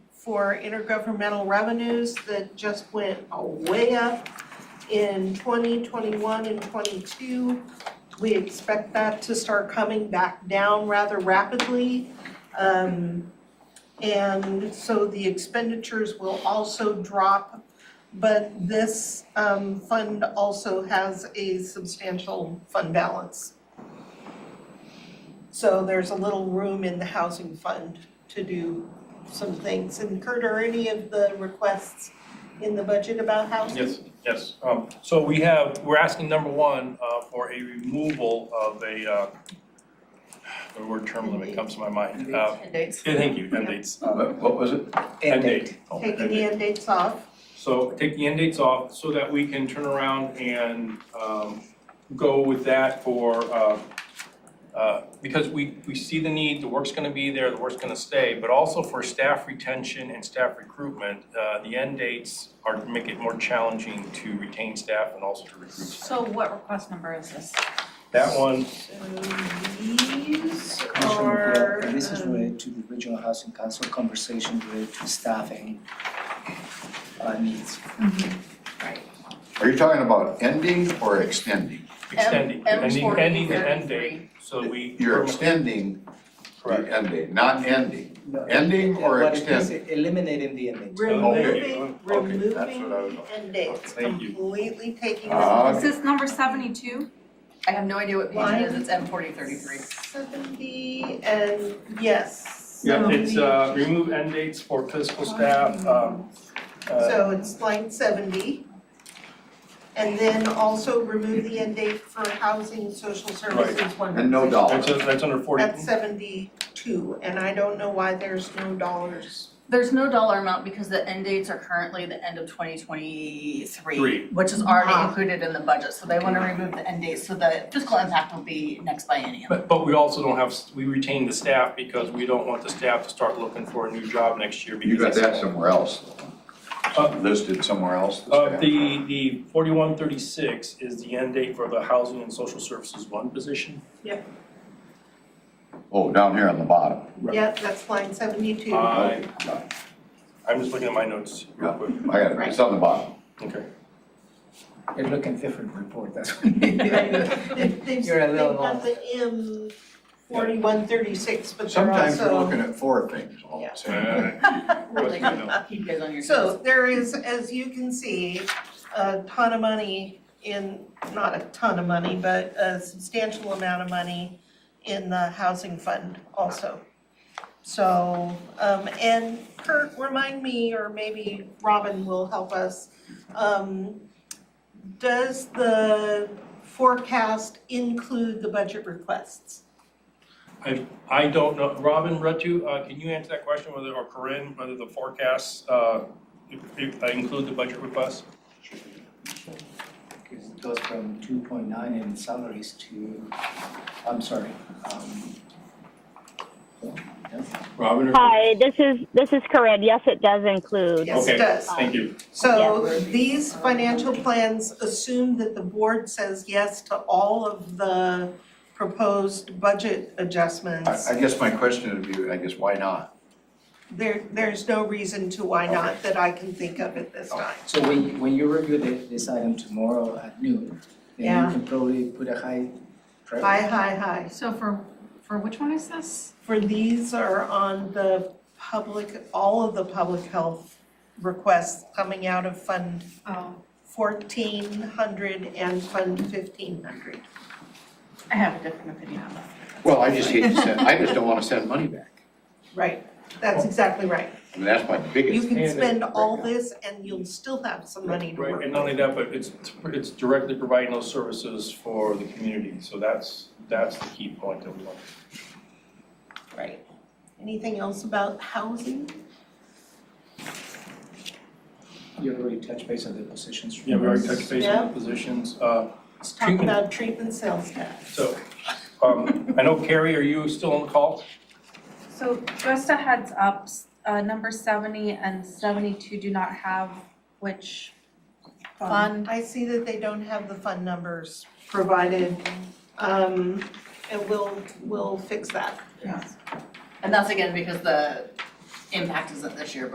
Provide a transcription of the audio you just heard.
for intergovernmental revenues that just went uh, way up in twenty twenty-one and twenty-two. We expect that to start coming back down rather rapidly. Um, and so the expenditures will also drop. But this um fund also has a substantial fund balance. So there's a little room in the housing fund to do some things. And Kurt, are any of the requests in the budget about housing? Yes, yes. Um, So we have, we're asking number one uh, for a removal of a, uh, the word term limit comes to my mind. Uh, yeah, Thank you, end dates. Uh, What was it? End date. Oh, end Taking date. the end dates off. So take the end dates off so that we can turn around and um, go with that for, uh, uh, because we, we see the need, the work's gonna be there, the work's gonna stay, but also for staff retention and staff recruitment. uh, The end dates are to make it more challenging to retain staff and also to recruit. staff. So what request number is this? That one, So these Commissioner are McClure, This is um, related to the regional housing council conversation related to staffing uh, needs. Are you talking about ending or extending? extending, M- ending, M40, ending the end date, 33. so we. You're extending Correct. the end date, not ending. No, Ending yeah, or what it is, extending? Eliminating the ending. Removing, Okay, removing that's what I was- the end dates, Thank you. completely taking Ah, Is this this number seventy-two? Uh, I have no idea what page it is, it's M forty thirty-three. seventy and yes. Yeah, it's, 70. uh, remove end dates for fiscal staff, um, uh, So it's line seventy. And then also remove the end date for housing, social services, one. And no That's, dollars. that's under forty. That's seventy-two, and I don't know why there's no dollars. There's no dollar amount because the end dates are currently the end of twenty Three. twenty-three, which is already Ah. included in the budget, so they wanna remove the end dates, so the fiscal impact will be next biennium. But, but we also don't have, we retain the staff because we don't want the staff to start looking for a new job next year because. You got that that's- somewhere else, though. Uh, listed somewhere else. the Uh, staff. the, the forty-one thirty-six is the end date for the housing and social services one position. Oh, down here on the bottom. Right. Ah, Yep, that's line seventy-two. I, Right. Uh, I'm just looking at my notes real quick. I got it, it's on the bottom. Okay. You're looking different report, that's what. They've, they've You're a little they've got the M forty-one thirty-six, but they're also. Sometimes you're looking at four things all Yeah. at the same time. Keep you guys on your toes. So there is, as you can see, a ton of money in, not a ton of money, but a substantial amount of money in the housing fund also. So, um, and Kurt, remind me, or maybe Robin will help us, um, does the forecast include the budget requests? I don't know, Robin Rutu, uh, can you answer that question whether, or Corinne, whether the forecasts, uh, if- if I include the budget request? Because it goes from two point nine in salaries to, I'm sorry, um. yes. Robin or? Hi, this is this is Corinne. Yes, it does include. Yes, it Okay. does. Thank you. So these financial plans assume that the board says yes to all of the proposed budget adjustments. I, I guess my question would be, I guess, why not? There, there's no reason to why not that I can think of at this time. So when, when you review the, this item tomorrow at noon, then Yeah. you can probably put a high. priority. Hi, hi, hi. So for, for which one is this? For these are on the public, all of the public health requests coming out of Fund Oh, fourteen hundred and Fund fifteen hundred. I have a different opinion on this. Well, I just hate to send, I just don't wanna send money back. Right, Oh. that's exactly right. I mean, that's my You biggest, can And- spend all this and you'll still have some money to work Right, and not only that, but it's, it's directly providing those services for the community, so that's, that's the key point that we want. Right. Anything else about housing? You already touched base on the positions. Yeah, we already touched base Yeah. on the positions, uh, Let's talk Treatment. about treatment sales tax. so, um, I know Carrie, are you still on the call? so just a heads up, s- uh, number seventy and seventy-two do not have which fund? I see that they don't have the fund numbers provided, um, and we'll, we'll fix that. And that's again because the impact isn't this year, but